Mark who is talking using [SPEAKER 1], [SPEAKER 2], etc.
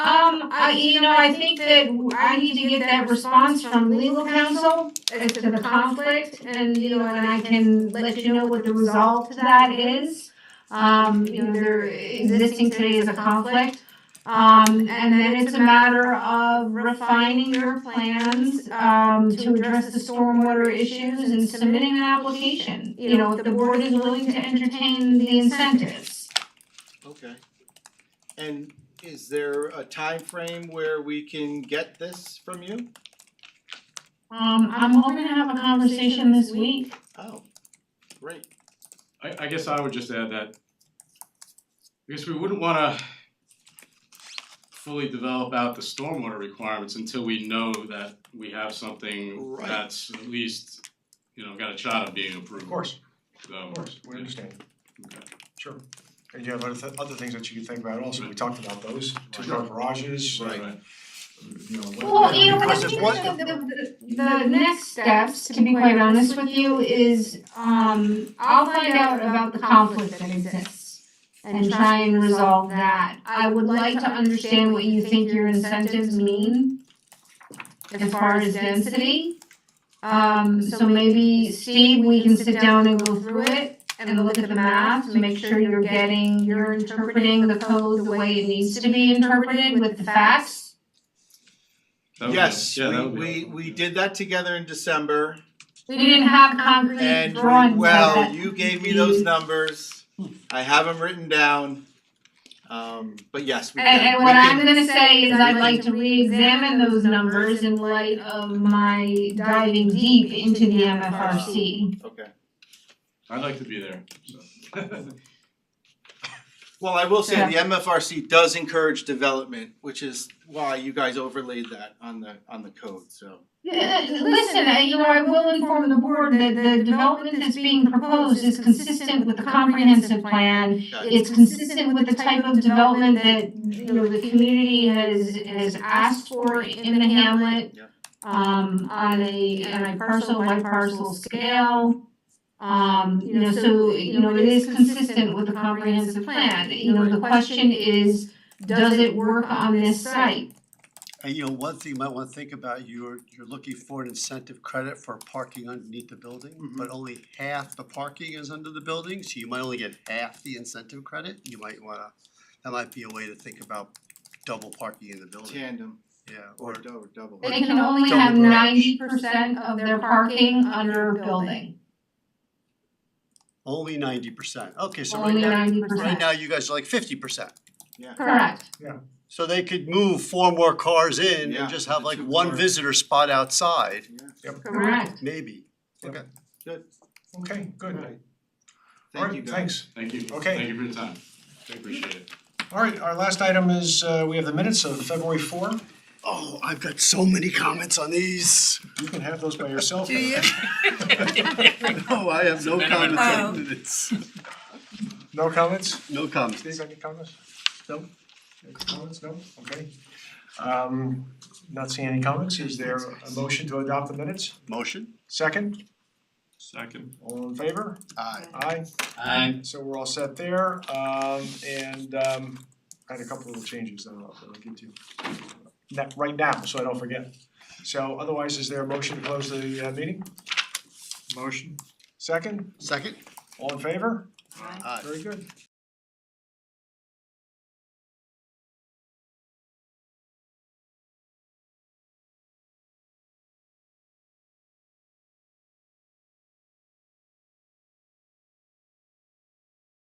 [SPEAKER 1] Um, I, you know, I think that I need to get that response from legal counsel as to the conflict and, you know, and I can let you know what the resolve to that is. Um, you know, there existing today is a conflict. Um, and then it's a matter of refining your plans, um, to address the stormwater issues and submitting an application. You know, if the board is willing to entertain the incentives.
[SPEAKER 2] Okay. And is there a time frame where we can get this from you?
[SPEAKER 1] Um, I'm hoping to have a conversation this week.
[SPEAKER 2] Oh, great.
[SPEAKER 3] I I guess I would just add that because we wouldn't wanna fully develop out the stormwater requirements until we know that we have something
[SPEAKER 2] Right.
[SPEAKER 3] that's at least, you know, got a shot of being approved.
[SPEAKER 4] Of course,
[SPEAKER 3] So.
[SPEAKER 4] of course, we understand.
[SPEAKER 3] Okay.
[SPEAKER 4] Sure. And you have other th- other things that you can think about also, we talked about those, two car
[SPEAKER 3] Right.
[SPEAKER 4] garages, uh,
[SPEAKER 2] Right.
[SPEAKER 3] Right.
[SPEAKER 4] you know, what-
[SPEAKER 1] Well, you know, when
[SPEAKER 4] Because
[SPEAKER 1] the,
[SPEAKER 4] if
[SPEAKER 1] the,
[SPEAKER 4] what-
[SPEAKER 1] the, the- the next steps, to be quite honest with you, is, um, I'll find out about the conflict that exists and try and resolve that. I would like to understand what you think your incentives mean as far as density. Um, so maybe, Steve, we can sit down and go through it and look at the math, to make sure you're getting, you're interpreting the code the way it needs to be interpreted with the facts.
[SPEAKER 3] That would be-
[SPEAKER 2] Yes,
[SPEAKER 3] yeah, that
[SPEAKER 2] we
[SPEAKER 3] would be
[SPEAKER 2] we
[SPEAKER 3] helpful,
[SPEAKER 2] we
[SPEAKER 3] yeah.
[SPEAKER 2] did that together in December
[SPEAKER 1] We didn't have concrete
[SPEAKER 2] and
[SPEAKER 1] drawings. of
[SPEAKER 2] we- well,
[SPEAKER 1] that.
[SPEAKER 2] you gave me those numbers. I have them written down. Um but yes, we
[SPEAKER 1] And,
[SPEAKER 2] can, we
[SPEAKER 1] and what I'm
[SPEAKER 2] can,
[SPEAKER 1] gonna say is I'd like to reexamine those numbers in light of my diving deep into the MFRC.
[SPEAKER 2] okay.
[SPEAKER 3] I'd like to be there, so.
[SPEAKER 2] Well, I will say
[SPEAKER 1] Yeah.
[SPEAKER 2] the MFRC does encourage development, which is why you guys overlaid that on the on the code, so.
[SPEAKER 1] Yeah, Listen, uh, you know, I will inform the board that the development that's being proposed is consistent with the comprehensive plan.
[SPEAKER 2] got it.
[SPEAKER 1] It's consistent with the type of development that, you know, the community has, has asked for in the hamlet.
[SPEAKER 2] Yeah.
[SPEAKER 1] Um, on a, on a parcel by parcel scale. Um, you know, so, you know, it is consistent with the comprehensive plan. You know, the question is, does it work on this site?
[SPEAKER 5] And you know, one thing you might wanna think about, you're you're looking for an incentive credit for parking underneath the building,
[SPEAKER 2] Mhm.
[SPEAKER 5] but only half the parking is under the building, so you might only get half the incentive credit, you might wanna, that might be a way to think about double parking in the building,
[SPEAKER 2] Tandem
[SPEAKER 5] yeah,
[SPEAKER 2] or
[SPEAKER 5] or
[SPEAKER 2] dou- double.
[SPEAKER 1] They can only have
[SPEAKER 5] Double
[SPEAKER 1] ninety
[SPEAKER 5] garage.
[SPEAKER 1] percent of their parking under a building,
[SPEAKER 5] only ninety percent, okay, so right
[SPEAKER 1] only
[SPEAKER 5] now,
[SPEAKER 1] ninety
[SPEAKER 5] right
[SPEAKER 1] percent.
[SPEAKER 5] now you guys are like fifty percent.
[SPEAKER 1] Correct.
[SPEAKER 5] So they could move four more cars in
[SPEAKER 2] Yeah,
[SPEAKER 5] and just have
[SPEAKER 2] the
[SPEAKER 5] like
[SPEAKER 2] two
[SPEAKER 5] one
[SPEAKER 2] cars.
[SPEAKER 5] visitor spot outside,
[SPEAKER 2] Yeah,
[SPEAKER 1] Correct.
[SPEAKER 5] maybe,
[SPEAKER 4] Yep.
[SPEAKER 5] okay.
[SPEAKER 2] good,
[SPEAKER 4] Okay, good,
[SPEAKER 2] thank you
[SPEAKER 4] alright,
[SPEAKER 2] guys.
[SPEAKER 4] thanks.
[SPEAKER 3] Thank you,
[SPEAKER 4] Okay.
[SPEAKER 3] thank you for your time, appreciate it.
[SPEAKER 4] Alright, our last item is, uh, we have the minutes of February four,
[SPEAKER 5] Oh, I've got so many comments on these.
[SPEAKER 4] you can have those by yourself.
[SPEAKER 5] Do you? No, Oh, I have no comments on this.
[SPEAKER 4] No comments?
[SPEAKER 5] No comments.
[SPEAKER 4] Steve, any comments? No. Any comments, no, okay. Um, not seeing any comments, is there a motion to adopt the minutes?
[SPEAKER 5] Motion?
[SPEAKER 4] Second,
[SPEAKER 3] Second.
[SPEAKER 4] all in favor?
[SPEAKER 5] Aye.
[SPEAKER 4] Aye. Aye. So we're all set there, um, and, um, I had a couple little changes that I'll, that I'll get to. na- right now, so I don't forget. So otherwise, is there a motion to close the, uh, meeting? Motion. Second,
[SPEAKER 5] Second?
[SPEAKER 4] all in favor?
[SPEAKER 5] Aye.
[SPEAKER 4] Very good.